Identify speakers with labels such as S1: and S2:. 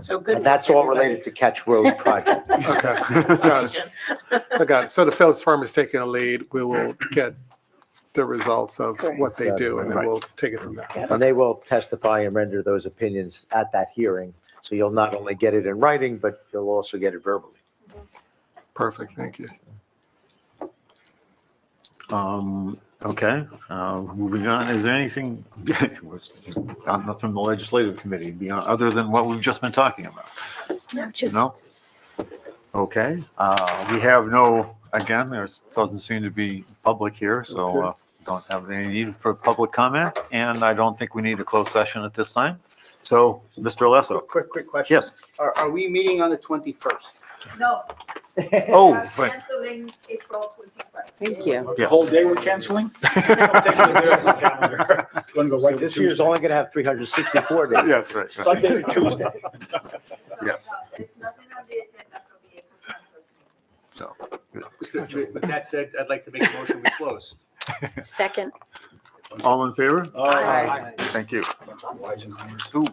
S1: So good.
S2: And that's all related to Catch Road project.
S3: Okay, got it, I got it. So the Phillips firm is taking a lead. We will get the results of what they do and then we'll take it from there.
S2: And they will testify and render those opinions at that hearing. So you'll not only get it in writing, but you'll also get it verbally.
S3: Perfect, thank you.
S4: Um, okay, uh, moving on, is there anything, got nothing from the legislative committee beyond, other than what we've just been talking about?
S1: No, just,
S4: No? Okay, uh, we have no, again, there doesn't seem to be public here, so uh, don't have any need for public comment, and I don't think we need a closed session at this time. So, Mr. Alesso,
S5: Quick, quick question.
S4: yes,
S5: Are, are we meeting on the 21st?
S6: No.
S4: Oh,
S6: I'm
S4: right.
S6: Canceling April twenty-first.
S7: Thank you.
S5: The whole day we're canceling? Gonna go right to
S2: This year's
S5: Tuesday.
S2: only going to have 364 days.
S4: yes, right, right.
S5: Sunday to Tuesday.
S4: Yes.
S6: There's nothing on the agenda for the April twenty-first.
S4: so,
S5: With with that said, I'd like to make a motion we close.
S1: second.
S4: all in favor?
S5: Aye.
S4: Thank you.
S5: Weisenheimer.
S4: Ooh.